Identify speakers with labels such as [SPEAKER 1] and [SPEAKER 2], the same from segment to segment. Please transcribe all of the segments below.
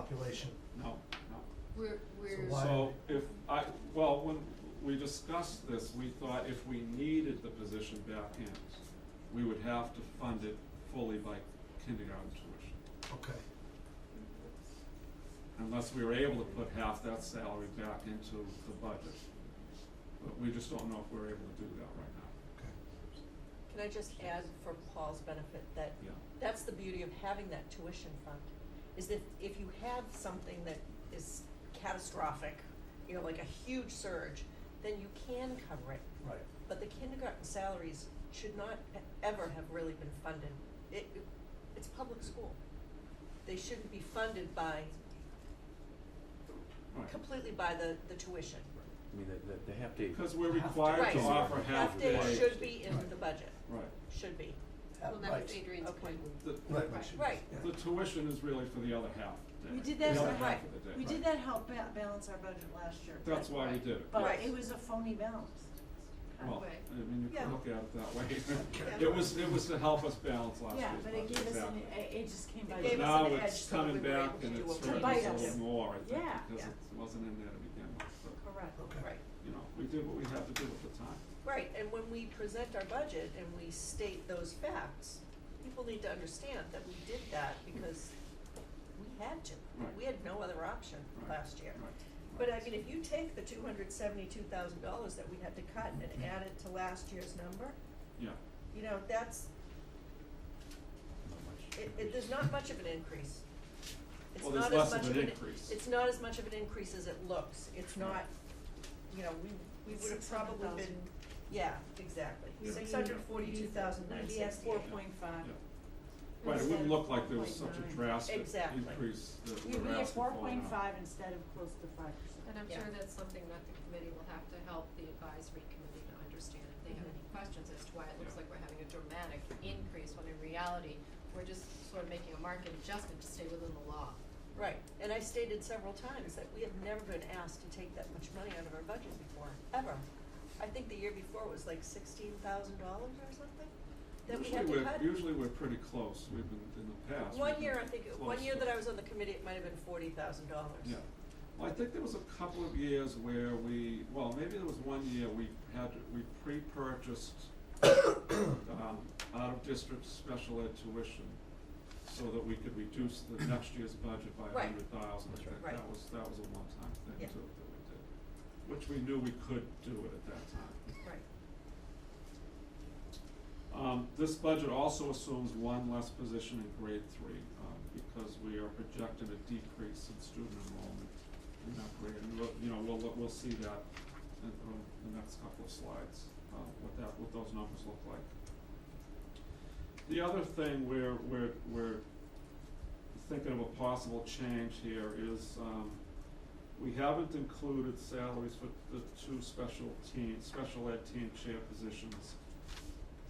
[SPEAKER 1] population.
[SPEAKER 2] No, no.
[SPEAKER 3] We're, we're.
[SPEAKER 1] why-
[SPEAKER 2] So if I, well, when we discussed this, we thought if we needed the position back in, we would have to fund it fully by kindergarten tuition.
[SPEAKER 1] Okay,
[SPEAKER 2] Unless we were able to put half that salary back into the budget. But we just don't know if we're able to do that right now.
[SPEAKER 1] okay.
[SPEAKER 4] Can I just add for Paul's benefit that
[SPEAKER 2] Yeah.
[SPEAKER 4] that's the beauty of having that tuition fund, is that if you have something that is catastrophic, you know, like a huge surge, then you can cover it.
[SPEAKER 1] Right.
[SPEAKER 4] But the kindergarten salaries should not e- ever have really been funded. It, it- it's public school. They shouldn't be funded by,
[SPEAKER 2] Right.
[SPEAKER 4] completely by the, the tuition.
[SPEAKER 5] I mean, they- they, they have to.
[SPEAKER 2] Because we're required
[SPEAKER 4] Right,
[SPEAKER 2] to
[SPEAKER 4] so
[SPEAKER 2] offer half day.
[SPEAKER 4] Half day should be in
[SPEAKER 1] Right.
[SPEAKER 4] the budget,
[SPEAKER 2] Right.
[SPEAKER 4] should be.
[SPEAKER 3] Well, that was
[SPEAKER 1] Right.
[SPEAKER 3] Adrian's
[SPEAKER 4] Okay.
[SPEAKER 3] point.
[SPEAKER 2] The,
[SPEAKER 1] Right.
[SPEAKER 3] Right.
[SPEAKER 4] Right.
[SPEAKER 1] Yeah.
[SPEAKER 2] the tuition is really for the other half day.
[SPEAKER 6] We did
[SPEAKER 2] The
[SPEAKER 6] that,
[SPEAKER 2] other
[SPEAKER 6] right.
[SPEAKER 2] half of the day.
[SPEAKER 6] We did that help ba- balance our budget last year. but-
[SPEAKER 2] That's why we did it.
[SPEAKER 6] But
[SPEAKER 4] Right.
[SPEAKER 6] it was a phony balance. kind of.
[SPEAKER 2] Well, I mean, you
[SPEAKER 4] Yeah.
[SPEAKER 2] can look at it that way.
[SPEAKER 4] Yeah.
[SPEAKER 2] It was, it was to help us balance last year's
[SPEAKER 6] Yeah, but it
[SPEAKER 2] budget,
[SPEAKER 6] gave us an,
[SPEAKER 2] exactly.
[SPEAKER 6] it it just came
[SPEAKER 4] It
[SPEAKER 6] by.
[SPEAKER 4] gave
[SPEAKER 6] the-
[SPEAKER 4] us
[SPEAKER 2] Now
[SPEAKER 4] an edge
[SPEAKER 2] it's
[SPEAKER 4] so that we
[SPEAKER 2] coming
[SPEAKER 4] were
[SPEAKER 2] back
[SPEAKER 4] able to
[SPEAKER 2] and
[SPEAKER 4] do
[SPEAKER 2] it's
[SPEAKER 4] what
[SPEAKER 6] we
[SPEAKER 2] hurting
[SPEAKER 6] wanted
[SPEAKER 2] us a
[SPEAKER 6] to
[SPEAKER 2] little
[SPEAKER 6] do.
[SPEAKER 2] more, I think,
[SPEAKER 6] Yeah.
[SPEAKER 2] because
[SPEAKER 6] Yeah.
[SPEAKER 2] it wasn't in there to begin with, but,
[SPEAKER 6] Correct.
[SPEAKER 1] Okay.
[SPEAKER 4] Right.
[SPEAKER 2] you know, we did what we had to do at the time.
[SPEAKER 4] Right, and when we present our budget and we state those facts, people need to understand that we did that because we had to.
[SPEAKER 2] Right.
[SPEAKER 4] We had no other option
[SPEAKER 2] Right,
[SPEAKER 4] last year.
[SPEAKER 2] right,
[SPEAKER 4] But I
[SPEAKER 2] right.
[SPEAKER 4] mean, if you take the two hundred seventy-two thousand dollars that we had to cut and add it to last year's number,
[SPEAKER 2] Yeah,
[SPEAKER 4] you know, that's,
[SPEAKER 5] Not much.
[SPEAKER 4] it, it, there's not much of an increase. It's
[SPEAKER 2] Well, there's
[SPEAKER 4] not
[SPEAKER 2] less
[SPEAKER 4] as
[SPEAKER 2] of
[SPEAKER 4] much
[SPEAKER 2] an
[SPEAKER 4] of an,
[SPEAKER 2] increase.
[SPEAKER 4] it's not as much of an increase as it looks. It's
[SPEAKER 2] Right.
[SPEAKER 4] not, you know, we, we would have probably been,
[SPEAKER 6] 600,000.
[SPEAKER 4] yeah, exactly.
[SPEAKER 2] Yeah.
[SPEAKER 4] Six hundred forty-two thousand nine
[SPEAKER 6] We'd
[SPEAKER 4] sixty-eight.
[SPEAKER 6] be at four point
[SPEAKER 2] yeah.
[SPEAKER 6] five.
[SPEAKER 2] But it wouldn't look like there was
[SPEAKER 6] Instead
[SPEAKER 2] such
[SPEAKER 6] of
[SPEAKER 2] a
[SPEAKER 6] 4.9.
[SPEAKER 2] drastic
[SPEAKER 4] Exactly.
[SPEAKER 2] increase that we're asking for now.
[SPEAKER 6] We'd be at four point five instead of close to five
[SPEAKER 3] And
[SPEAKER 6] percent.
[SPEAKER 3] I'm
[SPEAKER 4] Yeah.
[SPEAKER 3] sure that's something that the committee will have to help the advisory committee to understand if they have
[SPEAKER 4] Mhm.
[SPEAKER 3] any questions as to why it looks
[SPEAKER 2] Yeah.
[SPEAKER 3] like we're having a dramatic increase when in reality, we're just sort of making a market adjustment to stay within the law.
[SPEAKER 4] Right, and I stated several times that we have never been asked to take that much money out of our budget before, ever. I think the year before was like sixteen thousand dollars or something that we had to cut.
[SPEAKER 2] Usually we're, usually we're pretty close, we've been, in the past. we've
[SPEAKER 4] One
[SPEAKER 2] been
[SPEAKER 4] year, I think, one
[SPEAKER 2] close
[SPEAKER 4] year
[SPEAKER 2] to-
[SPEAKER 4] that I was on the committee, it might have been forty thousand dollars.
[SPEAKER 2] Yeah, well, I think there was a couple of years where we, well, maybe there was one year we had, we pre-purchased um, out-of-district special ed tuition so that we could reduce the next year's budget by a
[SPEAKER 4] Right.
[SPEAKER 2] hundred thousand.
[SPEAKER 5] That's right.
[SPEAKER 2] That
[SPEAKER 4] Right.
[SPEAKER 2] was, that was a one-time
[SPEAKER 4] Yeah.
[SPEAKER 2] thing too, that we did, which we knew we could do it at that time.
[SPEAKER 4] Right,
[SPEAKER 2] Um, this budget also assumes one less position in grade three, um, because we are projecting a decrease in student enrollment in that grade. And we'll, you know, we'll, look- we'll see that in, on the next couple of slides, uh, what that, what those numbers look like. The other thing we're, we're, we're thinking of a possible change here is, um, we haven't included salaries for the two special teen, special ed teen chair positions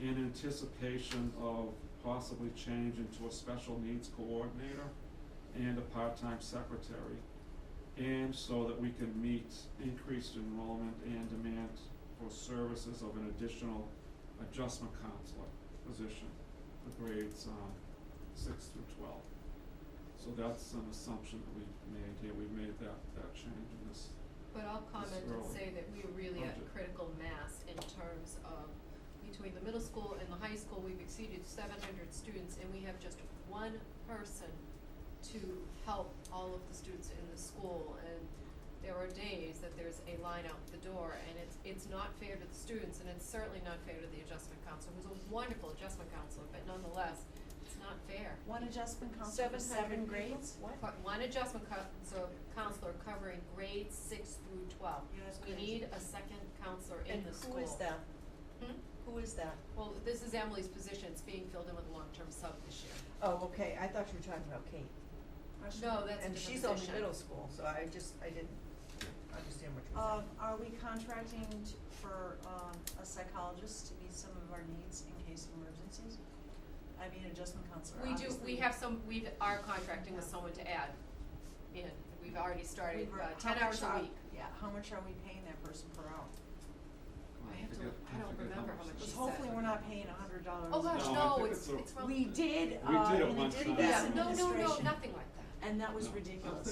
[SPEAKER 2] in anticipation of possibly change into a special needs coordinator and a part-time secretary. And so that we can meet increased enrollment and demand for services of an additional adjustment counselor position for grades, um, six through twelve. So that's an assumption that we've made here, we've made that, that change in this,
[SPEAKER 3] But I'll comment and
[SPEAKER 2] Throw
[SPEAKER 3] say that we are really at
[SPEAKER 2] budget.
[SPEAKER 3] critical mass in terms of, between the middle school and the high school, we've exceeded seven hundred students and we have just one person to help all of the students in the school and there are days that there's a line out the door and it's, it's not fair to the students and it's certainly not fair to the adjustment counselor, who's a wonderful adjustment counselor, but nonetheless, it's not fair.
[SPEAKER 6] One adjustment counselor
[SPEAKER 4] seven
[SPEAKER 6] for seven
[SPEAKER 4] hundred
[SPEAKER 6] grades?
[SPEAKER 4] what?
[SPEAKER 3] Co- One adjustment co- so counselor covering grades six through twelve.
[SPEAKER 6] Yeah, that's
[SPEAKER 3] We
[SPEAKER 6] crazy.
[SPEAKER 3] need a second counselor in the school.
[SPEAKER 4] And who is that?
[SPEAKER 3] Hmm?
[SPEAKER 4] Who is that?
[SPEAKER 3] Well, this is Emily's position, it's being filled in with a long-term sub this year.
[SPEAKER 4] Oh, okay, I thought you were talking about Kate.
[SPEAKER 3] No, Oh, that's a different
[SPEAKER 4] And she's only
[SPEAKER 3] position.
[SPEAKER 4] middle school, so I just, I didn't understand what you were
[SPEAKER 6] Um,
[SPEAKER 4] saying.
[SPEAKER 6] are we contracting t- for, um, a psychologist to meet some of our needs in case of emergencies? I mean, adjustment counselor,
[SPEAKER 3] We do,
[SPEAKER 6] obviously.
[SPEAKER 3] we have some, we are contracting with someone to add in, we've already started,
[SPEAKER 6] We've-
[SPEAKER 3] uh,
[SPEAKER 6] how
[SPEAKER 3] ten
[SPEAKER 6] much
[SPEAKER 3] hours
[SPEAKER 6] are-
[SPEAKER 3] a week.
[SPEAKER 6] Yeah, how much are we paying that person per hour?
[SPEAKER 2] I
[SPEAKER 3] I have to-
[SPEAKER 2] forget-
[SPEAKER 3] I don't
[SPEAKER 2] forget
[SPEAKER 3] remember how much
[SPEAKER 2] it
[SPEAKER 3] she
[SPEAKER 6] Cause
[SPEAKER 2] is.
[SPEAKER 3] said.
[SPEAKER 6] hopefully we're not paying a hundred dollars.
[SPEAKER 3] Oh gosh,
[SPEAKER 2] No, I
[SPEAKER 3] no,
[SPEAKER 2] think
[SPEAKER 3] it's,
[SPEAKER 2] it's a-
[SPEAKER 3] it's from.
[SPEAKER 6] We did,
[SPEAKER 2] We
[SPEAKER 6] uh,
[SPEAKER 2] did it
[SPEAKER 6] and
[SPEAKER 2] one
[SPEAKER 6] it did
[SPEAKER 2] time.
[SPEAKER 6] pass
[SPEAKER 3] Yeah,
[SPEAKER 2] Yes,
[SPEAKER 3] no, no, no,
[SPEAKER 6] administration.
[SPEAKER 3] nothing like that.
[SPEAKER 4] and that was
[SPEAKER 7] No.
[SPEAKER 4] ridiculous.